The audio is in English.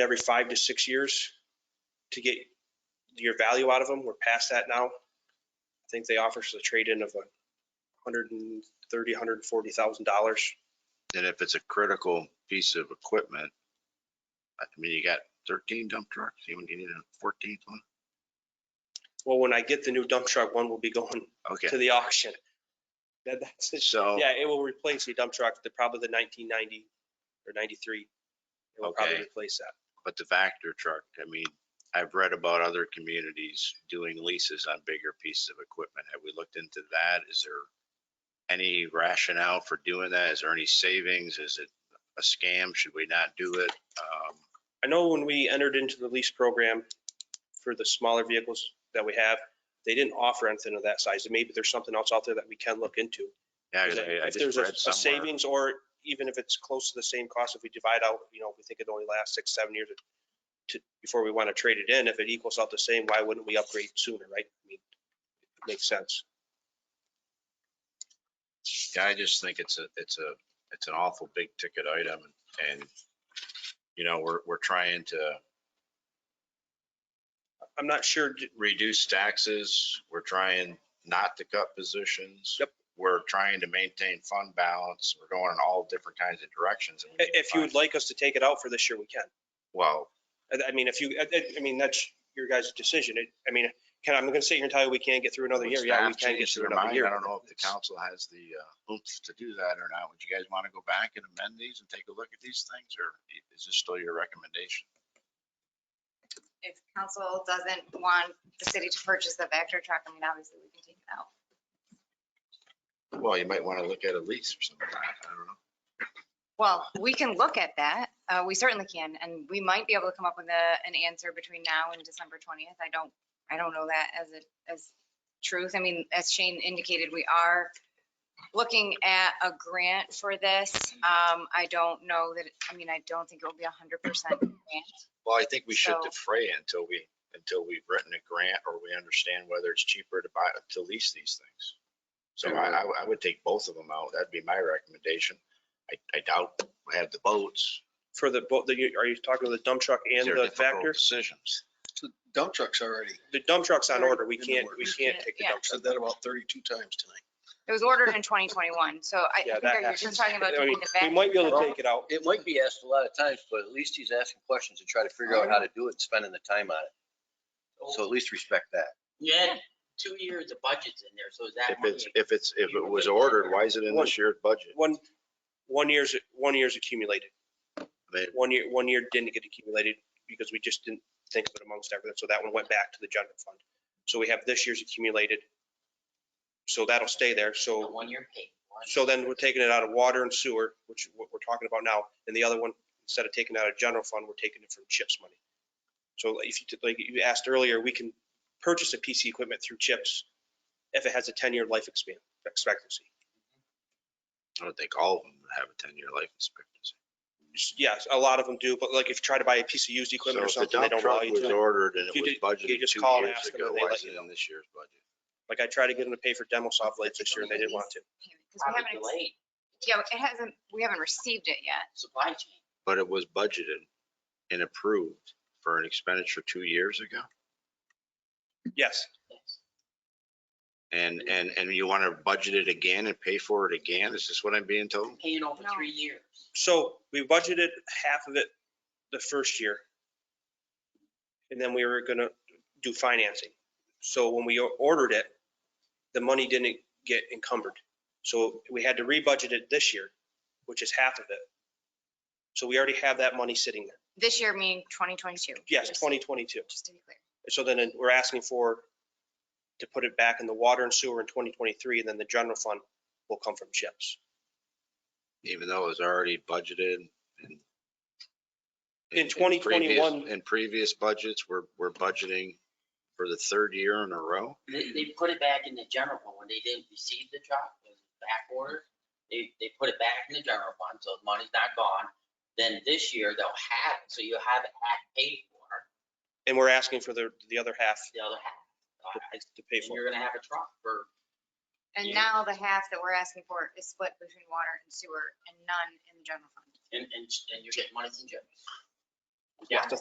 every five to six years to get your value out of them. We're past that now. I think they offer us a trade-in of a hundred and thirty, hundred and forty thousand dollars. And if it's a critical piece of equipment, I mean, you got 13 dump trucks, you would need a 14th one? Well, when I get the new dump truck, one will be going to Okay, the auction. That, that's it. so, Yeah, it will replace the dump truck, the, probably the nineteen ninety or ninety-three. It will probably Okay. replace that. but the Vector truck, I mean, I've read about other communities doing leases on bigger pieces of equipment. Have we looked into that? Is there any rationale for doing that? Is there any savings? Is it a scam? Should we not do it? Um, I know when we entered into the lease program for the smaller vehicles that we have, they didn't offer anything of that size. And Maybe there's something else out there that we can look into. Yeah, 'cause I- I If just there's a read a somewhere- savings or even if it's close to the same cost, if we divide out, you know, if we think it only lasts six, seven years to, before we want to trade it in, if it equals out the same, why wouldn't we upgrade sooner, right? I mean, it Makes sense. Yeah, I just think it's a, it's a, it's an awful big ticket item and, you know, we're, we're trying to I'm not sure, d- reduce taxes. We're trying not to cut positions. Yep. We're trying to maintain fund balance. We're going in all different kinds of directions. and we i- need to if you find- would like us to take it out for this year, we can. Well, I- I mean, if you, I- I, I mean, that's your guys' decision. It- I mean, can, I'm gonna sit here and tell you we can't get through another would year. Yeah, we staff can get change through their another mind? year. I don't know if the It's- council has the uh, oomph to do that or not. Would you guys want to go back and amend these and take a look at these things or is this still your recommendation? if council doesn't want the city to purchase the Vector truck, I mean, obviously we can take it out. Well, you might want to look at a lease or something. I don't know. Well, we can look at that. Uh, we certainly can, and we might be able to come up with a, an answer between now and December twentieth. I don't, I don't know that as a, as truth. I mean, as Shane indicated, we are looking at a grant for this. Um, I don't know that, I mean, I don't think it will be a hundred percent grant. Well, I think we should So- defray it until we, until we've written a grant or we understand whether it's cheaper to buy, to lease these things. So I, I would- I would take both of them out. That'd be my recommendation. I, I doubt we have the boats. For the, boat, the- are you talking the dump truck and These are the difficult tractor? Decisions. So Dump trucks already. The dump truck's on Right. order. We In the can't, works. we can't take the Yeah. dump Said truck. that about 32 times tonight. It was ordered in twenty twenty-one, so I Yeah, think that you're happens. just talking about I mean, doing the We Vector. might be able to truck. take it out. It might be asked a lot of times, but at least he's asking questions and trying to figure out how to do it and spending the time on it. So at least respect that. You had two years of budgets in there, so is that If money? it's, if it's, if it was ordered, why is it in this year's budget? One, one year's, one year's accumulated. I mean, One year, one year didn't get accumulated because we just didn't think of it amongst everything. So that one went back to the general fund. So we have this year's accumulated. So that'll stay there. So One year paid. one- So then we're taking it out of water and sewer, which what we're talking about now, and the other one, instead of taking it out of general fund, we're taking it from CHIPS money. So like, if you, like you asked earlier, we can purchase a PC equipment through CHIPS if it has a ten-year life expan, expectancy. I don't think all of them have a ten-year life expectancy. Just- Yes, a lot of them do, but like if you try to buy a piece of used So equipment or if the something, they dump don't allow truck you was to. ordered and You it was did- you budgeted just two call and years ask them ago, and they why let is you it know. in this year's budget? Like I tried to get them to pay for demo saw blades this year and they didn't want to. Because we Probably haven't, ex- delayed yeah, it hasn't, we haven't received it yet. supply chain. but it was budgeted and approved for an expenditure two years ago. Yes, Yes. And, and, and you want to budget it again and pay for it again? Is this what I'm being told? Paying over No. three years. so we budgeted half of it the first year. And then we were gonna do financing. So when we ordered it, the money didn't get encumbered. So we had to rebudget it this year, which is half of it. So we already have that money sitting there. This year meaning 2022. Yes, just- 2022. Just to be clear. So then uh, we're asking for, to put it back in the water and sewer in 2023, and then the general fund will come from chips. Even though it was already budgeted and. In previous- 2021 In previous budgets, we're, we're budgeting for the third year in a row. They, they put it back in the general fund when they didn't receive the truck, it was back order. They, they put it back in the general fund, so the money's not gone. Then this year they'll have it, so you'll have it half paid for, And we're asking for the, the other half the other half. Uh, to- I- to pay And for. you're gonna have a truck for And Yeah. now the half that we're asking for is split between water and sewer and none in the general fund. And, and, and you're getting money from Jim. You have to